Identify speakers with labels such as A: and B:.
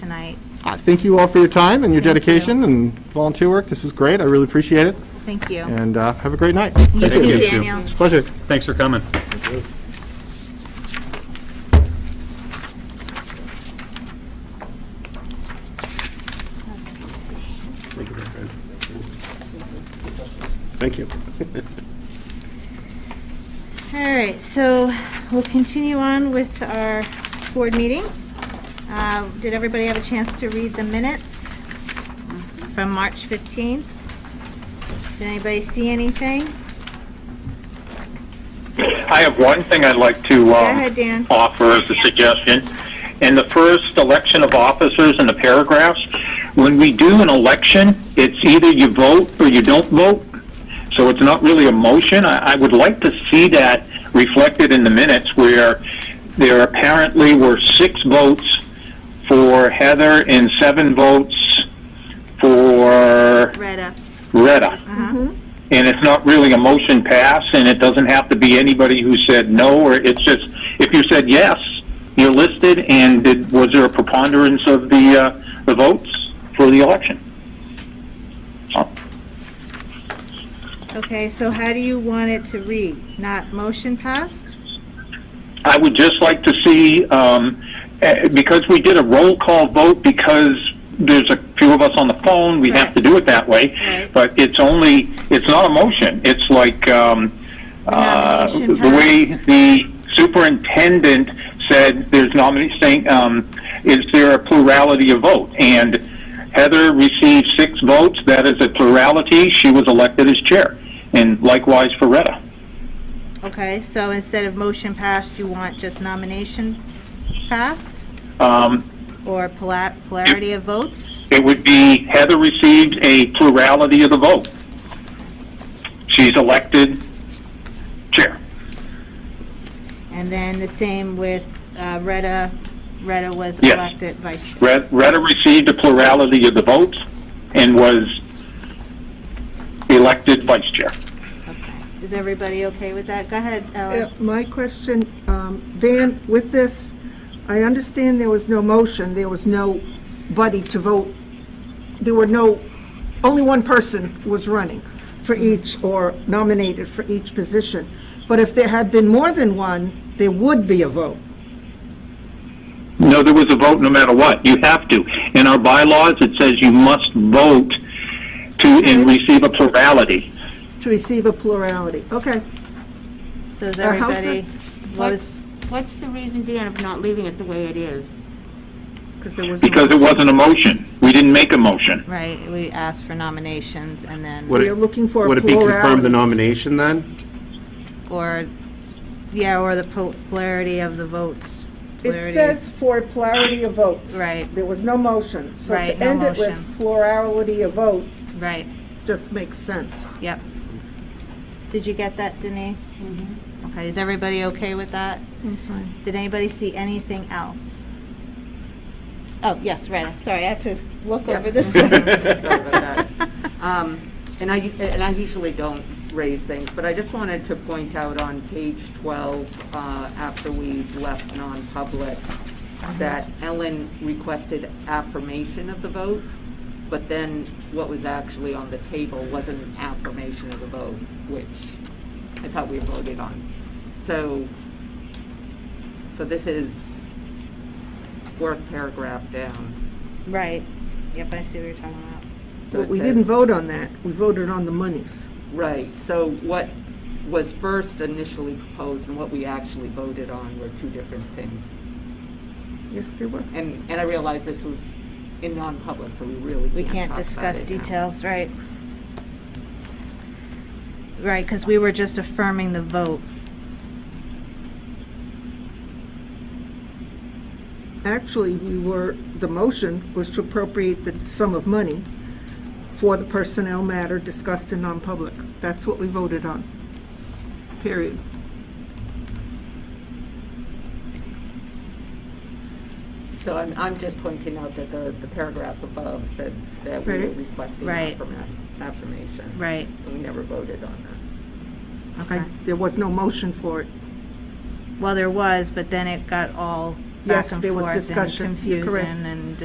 A: tonight.
B: I thank you all for your time and your dedication and volunteer work. This is great. I really appreciate it.
A: Thank you.
B: And uh, have a great night.
A: You too,
C: you. Thank you.
A: Daniel.
B: Pleasure.
C: Thanks for coming.
B: Thank you.
A: All right, so we'll continue on with our board meeting. Uh, Did everybody have a chance to read the minutes from March 15th? Did anybody see anything?
D: I have one thing I'd like to um,
A: ahead, Dan.
D: offer as a suggestion. In the first election of officers in the paragraphs, when we do an election, it's either you vote or you don't vote. So it's not really a motion. I, I would like to see that reflected in the minutes where there apparently were six votes for Heather and seven votes for
A: Read up.
D: Retta. And it's not really a motion pass, and it doesn't have to be anybody who said no, or it's just, if you said yes, you're listed, and did, was there a preponderance of the, uh, the votes for the election? So,
A: Okay, so how do you want it to read? Not motion passed?
D: I would just like to see, um, eh, because we did a roll call vote, because there's a few of us on the phone, we have to do it that way,
A: Right.
D: but it's only, it's not a motion, it's like, um, uh,
A: Nomination
D: the way the superintendent said, there's nominee saying, um, is there a plurality of vote? And Heather received six votes, that is a plurality, she was elected as chair, and likewise for Retta.
A: Okay, so instead of motion passed, you want just nomination passed?
D: Um,
A: Or pola- polarity of votes?
D: It would be Heather received a plurality of the vote. She's elected chair.
A: And then the same with uh, Retta, Retta was
D: Yes.
A: elected vice chair.
D: Red- Retta received a plurality of the votes and was elected vice chair.
A: Okay. Is everybody okay with that? Go ahead,
E: Yeah,
A: Ellen.
E: Uh, My question, um, Van, with this, I understand there was no motion, there was nobody to vote, there were no, only one person was running for each, or nominated for each position. But if there had been more than one, there would be a vote.
D: No, there was a vote no matter what. You have to. In our bylaws, it says you must vote to, and receive a plurality.
E: To receive a plurality, okay.
A: So is
E: Uh, how's
A: everybody, what
F: What's,
A: was,
F: what's the reason, Dan, of not leaving it the way it is?
E: Because there was. no-
D: Because it wasn't a motion. We didn't make a motion.
A: right, we asked for nominations and then,
E: We are looking for a
B: Would it be confirmed
E: plurality.
B: the nomination then?
A: or, yeah, or the pol- polarity of the votes.
E: It
A: Polarity.
E: says for plurality of votes.
A: Right.
E: There was no motion. So
A: Right,
E: to
A: no
E: end it with
A: motion.
E: plurality of vote
A: Right,
E: just makes sense.
A: yep. Did you get that, Denise? Okay, is everybody okay with that?
E: Mm-hmm. I'm fine.
A: Did anybody see anything else? Oh, yes, Retta, sorry, I have to look over this one.
G: Sorry about that. Um, And I, and I usually don't raise things, but I just wanted to point out on page 12, uh, after we left non-public, that Ellen requested affirmation of the vote, but then what was actually on the table wasn't an affirmation of the vote, which I thought we voted on. So, so this is fourth paragraph down.
A: Right, yep, I see what you're talking about.
G: So
E: But
G: it
E: we
G: says-
E: didn't vote on that. We voted on the monies.
G: Right, so what was first initially proposed and what we actually voted on were two different things.
E: Yes, they were.
G: And, and I realize this was in non-public, so we really
A: We can't
G: can't talk about
A: discuss
G: it now.
A: details, right? Right, because we were just affirming the vote.
E: Actually, we were, the motion was to appropriate the sum of money for the personnel matter discussed in non-public. That's what we voted on. Period.
G: So I'm, I'm just pointing out that the, the paragraph above said that we were
E: Right.
G: requesting
A: Right.
G: affirma- affirmation.
A: Right.
G: We never voted on that.
E: I- There was no motion for it.
A: Well, there was, but then it got all back
E: Yes,
A: and
E: there was
A: forth and
E: discussion. You're correct.
A: confusion and